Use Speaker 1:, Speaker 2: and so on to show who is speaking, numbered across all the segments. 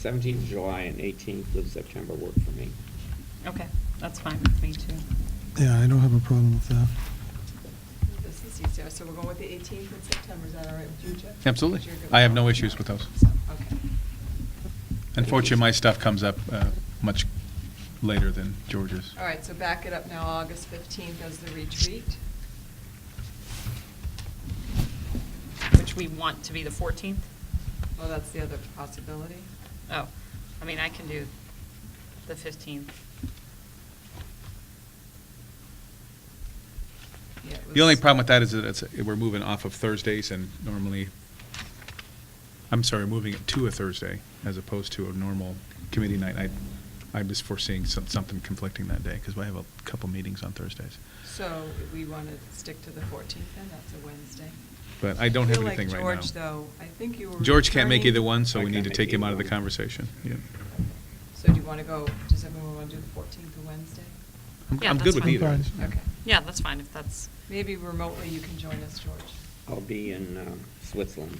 Speaker 1: seventeenth of July and eighteenth of September work for me.
Speaker 2: Okay, that's fine with me, too.
Speaker 3: Yeah, I don't have a problem with that.
Speaker 4: This is easier, so we're going with the 18th in September, is that all right with you, Jeff?
Speaker 5: Absolutely.
Speaker 4: You're good with
Speaker 5: I have
Speaker 4: that?
Speaker 5: no issues with those.
Speaker 4: So, Okay.
Speaker 5: Unfortunately, my stuff comes up uh, much later than George's.
Speaker 4: All right, so back it up now, August 15th as the retreat.
Speaker 2: Which we want to be the 14th?
Speaker 4: Well, that's the other possibility.
Speaker 2: Oh, I mean, I can do the 15th.
Speaker 4: Yeah, it
Speaker 5: The only
Speaker 4: was-
Speaker 5: problem with that is that it's, we're moving off of Thursdays and normally, I'm sorry, moving it to a Thursday as opposed to a normal committee night. I, I'm just foreseeing some- something conflicting that day because I have a couple meetings on Thursdays.
Speaker 4: So we want to stick to the 14th then, that's a Wednesday.
Speaker 5: But I don't have
Speaker 4: feel like
Speaker 5: anything right now.
Speaker 4: George, though, I think you were.
Speaker 5: George can't make either
Speaker 4: returning-
Speaker 5: one, so
Speaker 1: I
Speaker 5: we need
Speaker 1: can't
Speaker 5: to
Speaker 1: make
Speaker 5: take him
Speaker 1: either
Speaker 5: out of the
Speaker 1: one.
Speaker 5: conversation. Yeah.
Speaker 4: So do you want to go, does everyone want to do the 14th or Wednesday?
Speaker 5: I'm-
Speaker 2: Yeah,
Speaker 5: I'm
Speaker 2: that's
Speaker 5: good with
Speaker 2: fine.
Speaker 5: either.
Speaker 3: Fine.
Speaker 4: Okay.
Speaker 2: Yeah, that's fine, if that's,
Speaker 4: Maybe remotely you can join us, George.
Speaker 1: I'll be in um, Switzerland,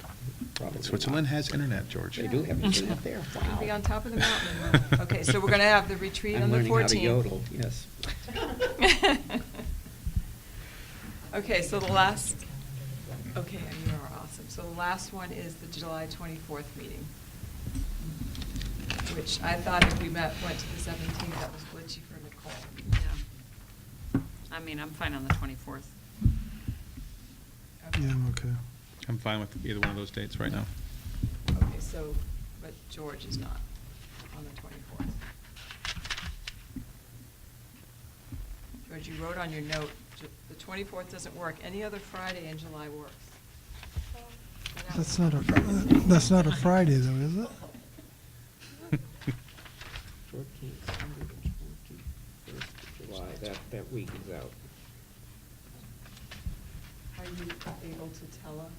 Speaker 1: probably.
Speaker 5: Switzerland
Speaker 1: not.
Speaker 5: has internet, George.
Speaker 1: They do have internet there, wow.
Speaker 4: You'll be on top of the mountain. Okay, so we're going to have the retreat on the 14th.
Speaker 1: I'm learning how to yodel, yes.
Speaker 4: Okay, so the last, okay, you are awesome. So the last one is the July 24th meeting, which I thought if we met, went to the 17th, that was glitchy for Nicole.
Speaker 2: yeah. I mean, I'm fine on the 24th.
Speaker 4: Okay.
Speaker 3: Yeah, I'm okay.
Speaker 5: I'm fine with either one of those dates right now.
Speaker 4: Okay, so, but George is not on the 24th. George, you wrote on your note, Ju- the 24th doesn't work. Any other Friday in July works.
Speaker 3: That's not a, that's not a Friday though, is it?
Speaker 1: Fourteenth, Sunday, the 21st of July, that, that week is out.
Speaker 4: Are you able to tell us?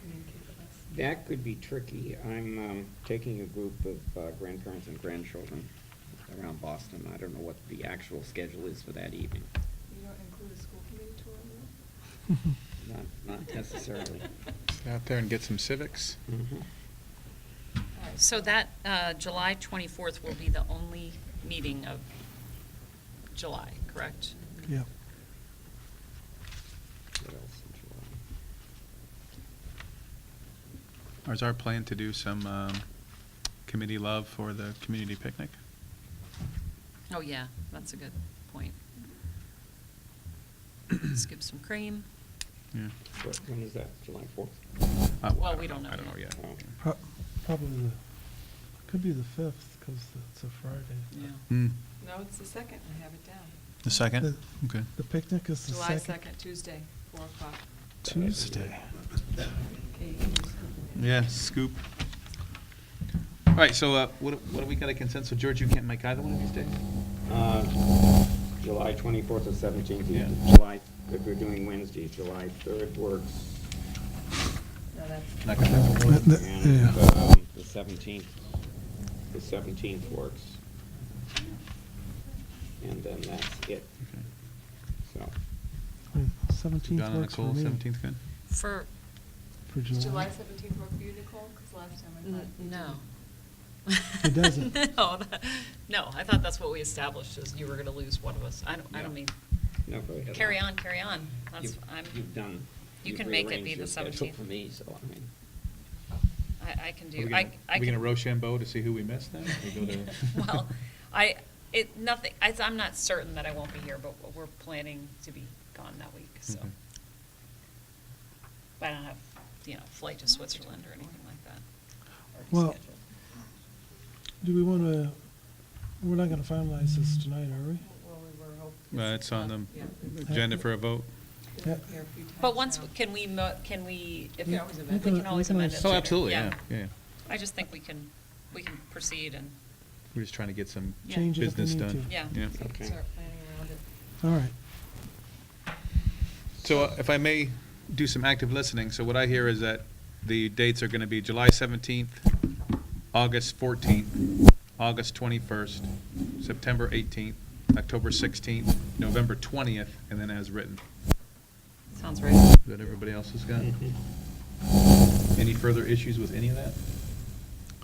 Speaker 4: Communicate with us?
Speaker 1: That could be tricky. I'm um, taking a group of uh, grandparents and grandchildren around Boston. I don't know what the actual schedule is for that evening.
Speaker 4: You don't include a school committee tour in
Speaker 1: Not, not necessarily.
Speaker 5: Get out there and get some civics.
Speaker 1: Mhm.
Speaker 4: that? All right,
Speaker 2: So that, uh, July 24th will be the only meeting of July, correct?
Speaker 3: Yeah.
Speaker 1: What else in July?
Speaker 5: Mm-hmm. Is our plan to do some um, committee love for the community picnic?
Speaker 2: Oh, yeah, that's a good point. Skip some cream.
Speaker 5: Yeah.
Speaker 1: What- When is that, July Oh, 4th?
Speaker 5: Uh,
Speaker 2: Well,
Speaker 5: I
Speaker 2: we don't
Speaker 5: don't know.
Speaker 2: know
Speaker 5: I don't know
Speaker 2: yet.
Speaker 5: yet.
Speaker 3: Pro- Probably the, could be the fifth because it's a Friday.
Speaker 2: Yeah.
Speaker 5: Hmm.
Speaker 4: No, it's the second, I have it down.
Speaker 5: The second?
Speaker 3: The-
Speaker 5: Okay.
Speaker 3: The picnic is the
Speaker 4: July
Speaker 3: second.
Speaker 4: 2nd, Tuesday, 4 o'clock.
Speaker 3: Tuesday.
Speaker 4: Okay, you can just come in.
Speaker 5: Yeah, scoop. All right, so uh, what, what do we got a consensus? George, you can't make either one of these days?
Speaker 1: Uh, July 24th or 17th,
Speaker 5: Yeah.
Speaker 1: July, if we're doing Wednesday, July 3rd works.
Speaker 4: No, that's.
Speaker 5: Not gonna happen.
Speaker 3: The-
Speaker 1: And
Speaker 3: yeah.
Speaker 1: um, the 17th, the 17th works. And then that's it,
Speaker 5: Okay.
Speaker 1: so.
Speaker 3: Seventeenth
Speaker 5: Donna,
Speaker 3: works for
Speaker 5: Nicole,
Speaker 3: me.
Speaker 5: seventeenth good?
Speaker 2: For,
Speaker 3: For
Speaker 4: Does
Speaker 3: July.
Speaker 4: July 17th work for you, Nicole? Because last time I thought.
Speaker 2: n-
Speaker 4: you
Speaker 2: no.
Speaker 3: It
Speaker 4: didn't.
Speaker 3: doesn't.
Speaker 2: No, that- no, I thought that's what we established, is you were gonna lose one of us. I don't, I don't
Speaker 1: Yeah.
Speaker 2: mean,
Speaker 1: no, go ahead.
Speaker 2: carry on, carry on. That's,
Speaker 1: You've-
Speaker 2: I'm,
Speaker 1: You've done.
Speaker 2: you
Speaker 1: you've
Speaker 2: can make it be
Speaker 1: rearranged
Speaker 2: the
Speaker 1: your schedule
Speaker 2: 17th.
Speaker 1: For me, so I mean.
Speaker 2: I, I can
Speaker 5: Are we
Speaker 2: do,
Speaker 5: gonna-
Speaker 2: I, I
Speaker 5: Are we
Speaker 2: can.
Speaker 5: gonna Rochambeau to see who we missed then? We go to-
Speaker 2: Well, I, it, nothing, I, I'm not certain that I won't be here, but we're planning to be gone that week, so.
Speaker 5: Okay.
Speaker 2: But I don't have, you know, flight to Switzerland or anything like that. already
Speaker 3: Well-
Speaker 2: scheduled.
Speaker 3: Do we want to, we're not going to finalize this tonight, are we?
Speaker 4: Well, we were hoping.
Speaker 5: Uh, It's on
Speaker 4: Yeah.
Speaker 5: the agenda for a vote.
Speaker 4: It's
Speaker 3: Yeah.
Speaker 4: been here a few times
Speaker 2: But once,
Speaker 4: now.
Speaker 2: can we, mo- can we, if,
Speaker 3: We
Speaker 2: we
Speaker 3: can always amend it.
Speaker 2: can
Speaker 3: We
Speaker 2: always
Speaker 3: can
Speaker 2: amend it
Speaker 3: always-
Speaker 2: later.
Speaker 5: Oh, absolutely, yeah, yeah.
Speaker 2: I just think we can, we can proceed and,
Speaker 5: We're just trying to get some
Speaker 2: Yeah.
Speaker 3: Change it if we
Speaker 5: business
Speaker 3: need to.
Speaker 5: done.
Speaker 2: Yeah.
Speaker 4: We can
Speaker 1: Okay.
Speaker 4: start planning around it.
Speaker 3: All right.
Speaker 5: So uh, if I may do some active listening, so what I hear is that the dates are going to be July 17th, August 14th, August 21st, September 18th, October 16th, November 20th, and then as written.
Speaker 2: sounds right.
Speaker 5: Is that everybody else has got? Any further issues with any of that?